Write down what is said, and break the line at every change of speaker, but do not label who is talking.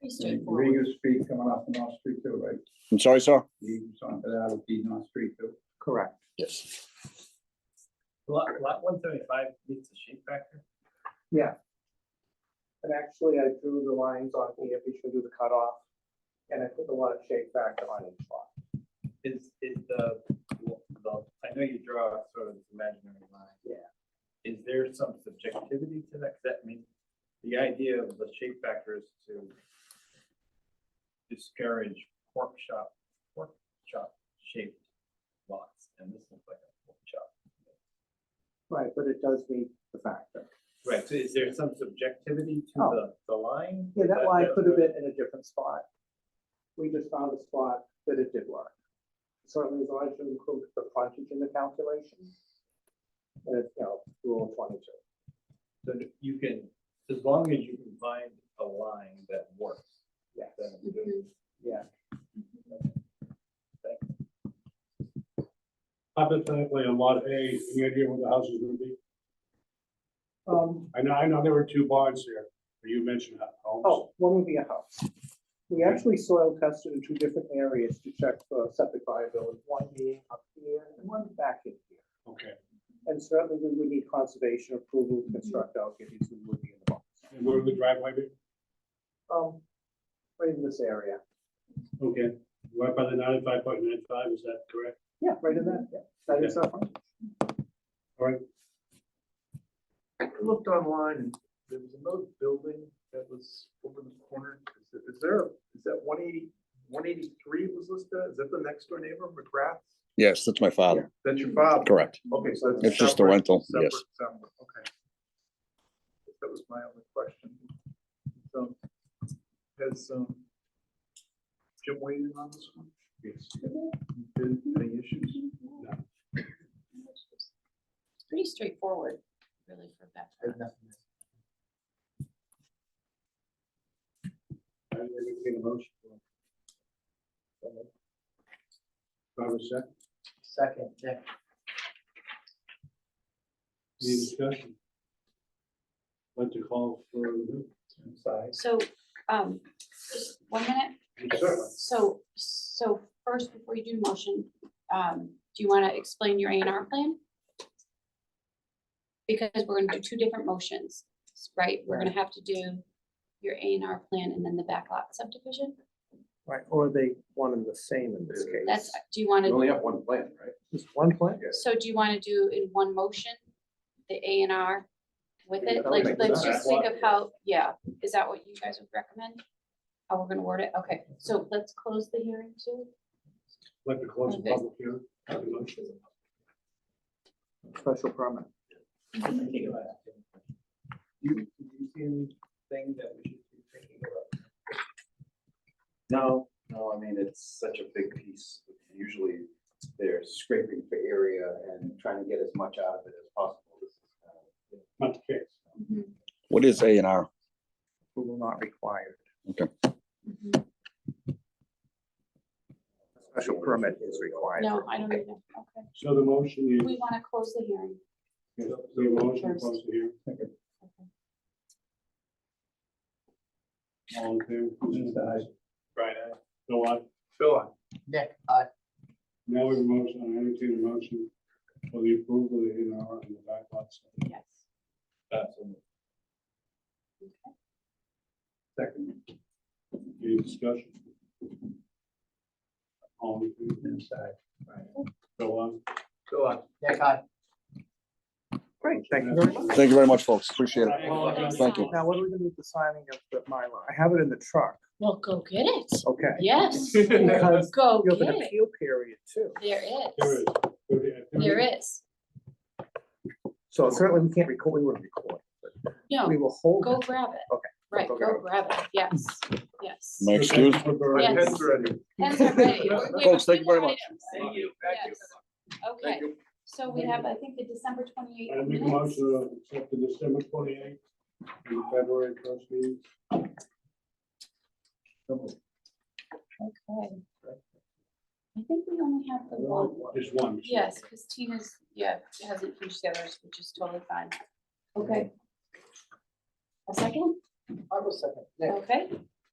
Pretty
Where
straightforward.
you speak coming off of North Street too, right?
I'm sorry, sir?
Eaves onto that would be North Street too.
Correct.
Yes.
Lot, lot one seventy-five meets the shape factor.
And actually, I drew the lines on here, if you should do the cutoff, and I put the lot of shape factor on each lot.
Is, is the, the, I know you draw sort of this imaginary line.
Yeah.
Is there some subjectivity to that? 'Cause That means the idea of the shape factor is to discourage pork chop, pork chop shaped lots, and this looks like a pork chop.
Right, but it does meet the factor.
Right, so is there some subjectivity to
Oh.
the, the line?
Yeah,
Is
that line could have
the-
been in a different spot. We just found a spot that it did work. Certainly, as long as you include the frontage in the calculation. And it's, you know, rule twenty-two.
So that you can, as long as you can find a line that works,
Yes,
then you do it.
Mm-hmm.
Mhm.
yeah.
Hypothetically, a lot A, any idea what the house is gonna be?
Um,
I know, I know there were two barns here, but you mentioned that homes.
Oh, one would be a house. We actually soil tested in two different areas to check for septic viability, one being up here and one back in here.
Okay,
And certainly we would need conservation approval to construct out if these would be in the box.
and where would the driveway be?
Um, right in this area.
Okay, right by the ninety-five point nine five, is that correct?
Yeah, right in that, yeah. That is our front.
All right,
I looked online, and there was another building that was over in the corner. Is there- Is there, is that 180 183 was listed? Is that the next door neighbor, McGrath?
Yes, that's my father.
That's your
Mm.
father?
Correct.
Okay, so that's.
It's just a
separate-
rental, yes.
separate, separate, Okay. That was my only question. So, has, um, Jim weighed in on this one? Yes. Been any issues?
It's Pretty straightforward, really, for that.
I would entertain a motion. Do I have a second?
Second, yeah.
Any discussion? Like to call for,
So, um, just one minute.
certainly,
So, so first, before you do the motion, um, do you want to explain your A and R plan? Because we're gonna do two different motions, right? We're gonna have to do your A and R plan and then the backlot subdivision.
Right, or they one and the same in this case.
That's, do you want to,
have one plan, right?
Just one plan?
so do you want to do in one motion, the A and R with it?
Yeah,
Like,
okay.
let's just think of
Backlot.
how, yeah, is that what you guys would recommend? How we're gonna word it? Okay, so let's close the hearing too.
like to close the
Okay.
public hearing. Have a motion.
Special permit.
You, do you see anything that we should be thinking about?
No, no, I mean, it's such a big piece. Usually they're scraping for area and trying to get as much out of it as possible. This is uh, kind of-
Not the case.
Mm-hmm,
What is A and R?
Who will not require.
mm-hmm.
Special permit is required.
No, I don't either. Okay.
So the motion is.
We want to close the hearing.
The motion
First.
close here. All in favor? Who's the aye? Brian, aye. Bill, aye.
Phil, I
Nick, I.
Now we have a motion, I entertain a motion for the approval of the A and R and the back lots.
Yes.
That's a
Okay.
second. Any discussion? All in favor? Yes, aye. Bill, aye.
Phil, I
Nick, I. Great, thank you very much.
Thank you very much, folks. Appreciate
I
it.
apologize.
Thank you.
Now, what are we gonna do with the signing of the Mylar? I have it in the truck,
Well, go get it.
okay?
Yes,
Because
go
you have
get
an
it.
appeal period too.
There
There
is,
is. okay, I think-
there is.
So certainly we can't record, we wouldn't record.
No,
We will hold.
Oh. go grab it.
Okay,
Right,
go
go grab it. Yes, yes.
My excuse?
Yes.
Heads ready.
That's all right. We have
Folks, thank you very
two
much.
items.
Thank you.
Yes. Okay, so we have, I think, the December
I make
twenty-eighth
a
minutes.
motion to accept the December twenty-eighth and the February first meeting.
Okay. I think we only have the one.
Just one.
Yes, because Tina's, yeah, hasn't finished the others, which is totally fine. Okay. A second?
I will second.
Okay,